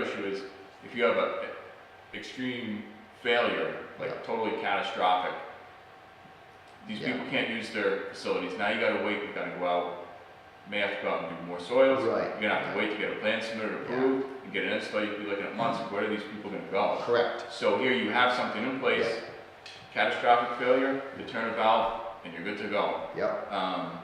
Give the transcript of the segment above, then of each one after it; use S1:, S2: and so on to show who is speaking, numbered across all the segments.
S1: issue is if you have a extreme failure, like totally catastrophic, these
S2: Yeah.
S1: people can't use their facilities. Now you gotta wait, you gotta go out, may have to go out and do more soils.
S2: Right.
S1: You're gonna have to wait to get a plan submitted,
S2: Yeah.
S1: approved, and get an install, you'd be looking at months, where are these people gonna go?
S2: Correct,
S1: So here you have something in place,
S2: Yeah.
S1: catastrophic failure, you turn a valve, and you're good to go.
S2: yep,
S1: Um,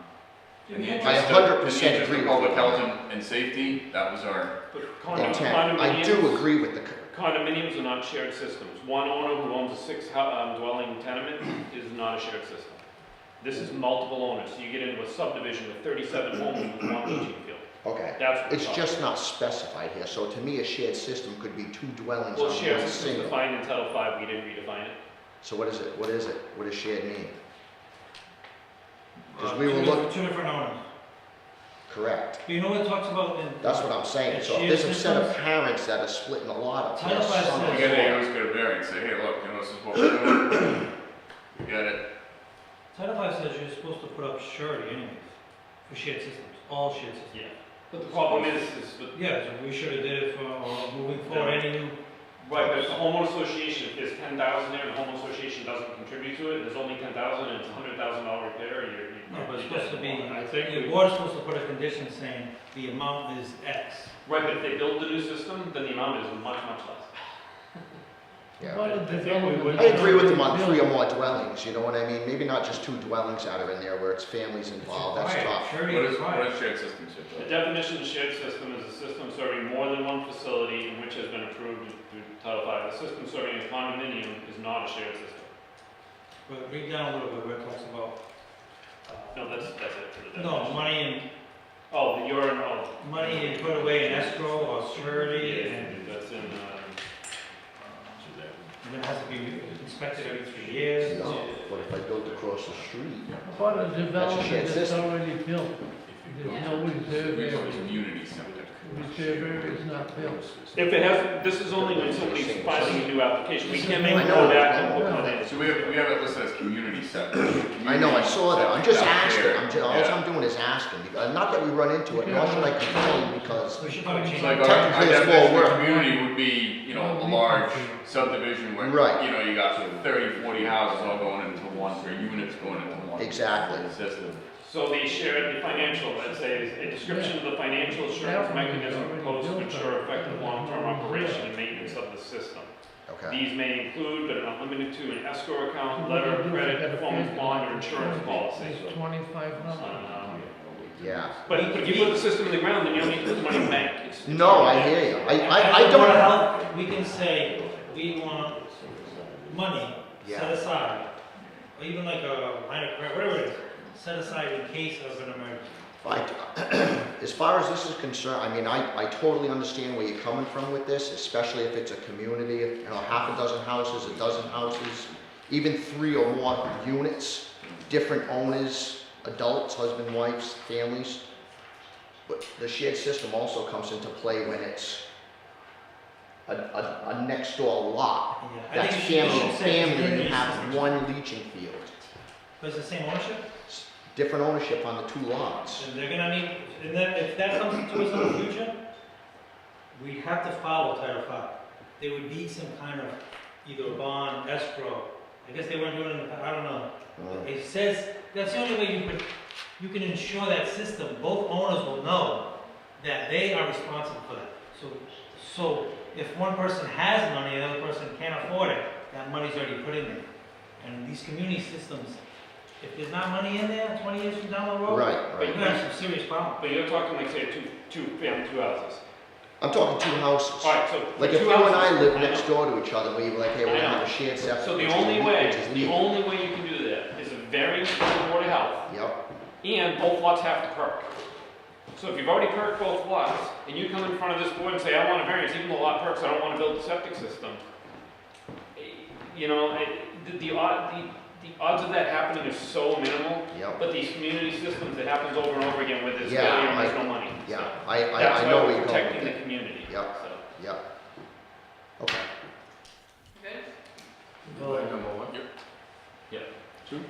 S1: in the
S3: Yeah.
S1: interest
S2: I
S1: of-
S2: 100%
S1: in the interest of
S2: agree with
S1: Public
S2: you.
S1: health and, and safety, that was our,
S3: But condo-
S2: intent, I do
S3: condominiums,
S2: agree with the, c-
S3: condominiums are not shared systems. One owner who owns a six hou- um, dwelling tenement is not a shared system. This is multiple owners, so you get into a subdivision with thirty-seven homes with one leaching field.
S2: okay.
S3: That's what we're
S2: It's
S3: talking
S2: just not specified here, so to me, a shared system could be two dwellings
S3: about.
S2: on
S3: Well, shared
S2: one
S3: system is
S2: single.
S3: defined in Title Five, we didn't redefine it.
S2: So what is it, what is it, what does shared mean? Because
S4: Uh,
S2: we
S4: two
S2: were
S4: different-
S2: look,
S4: Two different owners.
S2: correct,
S4: But you know what it talks about in.
S2: that's what I'm saying,
S4: And
S2: so if
S4: shared
S2: there's a set of
S4: systems?
S2: parents that are splitting a lot up.
S4: Title
S2: there's
S4: five
S2: some-
S4: says-
S1: again, they always get a variance, say, hey, look, you know, this is what we're doing. We got it,
S4: Title five says you're supposed to put up surety anyways, for shared systems, all shared systems.
S3: Yeah. But the problem is, is that
S4: Yeah, so we should have did it for, uh, moving forward,
S3: Yeah.
S4: any new,
S3: Right, but if the homeowner association, if there's ten thousand there and the homeowner association doesn't contribute to it, there's only ten thousand and it's a hundred thousand dollar repair, you're, you're.
S4: no, but it's
S3: you're
S4: supposed to be,
S3: dead. I think
S4: the
S3: we-
S4: board's supposed to put a condition saying the amount is X.
S3: Right, but if they build the new system, then the amount is much, much less.
S2: Yeah.
S5: Well, the development-
S2: I agree with them on three or more dwellings, you know what I mean? Maybe not just two dwellings that are in there where it's families
S4: It's
S2: involved, that's
S4: required.
S2: tough.
S1: what
S4: Surety
S1: is,
S4: is
S1: what
S4: required.
S1: is shared systems here, Joe?
S3: The definition of shared system is a system serving more than one facility and which has been approved through Title V. A system serving a condominium is not a shared system.
S4: But read down a little bit where it talks about. uh,
S3: No, that's, that's it for the definition.
S4: No, money and,
S3: Oh, the urine, oh.
S4: money and put away in escrow or surety
S3: Yeah,
S4: and,
S3: That's in, uh,
S4: and it has to be inspected every three years.
S2: No, but if I build across the street,
S5: But a development
S2: shared
S5: that's
S2: system.
S5: already built, there's no reserve
S1: We have a
S5: area.
S1: community center.
S5: Reserve area is not built.
S3: if it has, this is only when somebody's filing a new application. We can't make
S2: I
S3: them
S2: know,
S3: go back and look
S2: I know.
S3: on it.
S1: So we have, we have it listed as community center.
S2: I know, I saw that, I'm just
S1: Community
S2: asking,
S1: center
S2: I'm
S1: out
S2: just, all
S1: there.
S2: I'm doing is asking, because, not that we run into it, nor should I complain, because
S4: We should probably
S1: It's
S4: change.
S1: like our,
S4: it.
S1: our
S2: Technically, it's
S1: definition
S2: more
S1: of
S2: work.
S1: community would be, you know, a large subdivision where,
S2: Right.
S1: you know, you got sort of 30, 40 houses all going into one, or units going into one.
S2: Exactly.
S1: System.
S3: So the share, the financial, let's say, is a description of the financial assurance mechanism proposed to ensure effective long-term operation and maintenance of the system.
S2: Okay,
S3: These may include, but are not limited to, an escrow account, letter of credit, performance bond, or insurance policy.
S5: Twenty-five hundred.
S3: Um,
S2: yeah.
S3: But if you put the system in the ground, then you don't need to put money in the bank. It's- it's
S2: No, I
S3: already there.
S2: hear you, I,
S4: As
S2: I, I
S4: a Board
S2: don't,
S4: of Health, we can say, we want money set
S2: Yeah.
S4: aside, or even like a line of credit, whatever it is, set aside in case of an emergency.
S2: I- as far as this is concerned, I mean, I, I totally understand where you're coming from with this, especially if it's a community, you know, half a dozen houses, a dozen houses, even three or more units, different owners, adults, husband, wives, families. But the shared system also comes into play when it's a, a, a next door lot.
S4: Yeah, I
S2: That's
S4: think you should- you
S2: family,
S4: should say
S2: family, and you
S4: community
S2: have
S4: system.
S2: one leaching field,
S4: But it's the same ownership,
S2: S- different ownership on the two lots.
S4: and they're gonna need, and then if that comes to us in the future, we have to follow Title Five. They would need some kind of either bond, escrow, I guess they weren't doing it, in the pa- I don't know.
S2: Mm.
S4: It says, that's the only way you can, you can ensure that system, both owners will know that they are responsible for that. So, so if one person has money, and the other person can't afford it, that money's already put in there. And these community systems, if there's not money in there twenty years from down the road,
S2: Right,
S4: you're
S2: right.
S4: gonna have some serious problems.
S3: But you're talking like, say, two, two, family, two houses.
S2: I'm talking two houses.
S3: All right, so.
S2: Like
S3: two
S2: if you and I
S3: houses-
S2: lived
S3: I know.
S2: next door to each other, we were like, hey, we're gonna have a shared septic.
S3: So the
S2: which is
S3: only
S2: le-
S3: way,
S2: which is
S3: the
S2: legal.
S3: only way you can do that is a variance from the Board of Health,
S2: Yep,
S3: and both lots have to perk. So if you've already perked both lots, and you come in front of this board and say, I want a variance, even though lot perks, I don't wanna build the septic system. eh, You know, eh, the, the odd, the, the odds of that happening is so minimal,
S2: yep,
S3: but these community systems, it happens over and over again with this,
S2: Yeah,
S3: failure and
S2: I-
S3: there's no money.
S2: yeah,
S3: So
S2: I, I,
S3: That's
S2: I
S3: why
S2: know where you're
S3: we're
S2: going with
S3: protecting the
S2: that,
S3: community, so.
S2: Yep. yep. Okay,
S6: Good?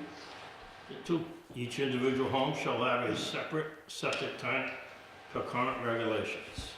S7: Two, each individual home shall have a separate septic tank per current regulations.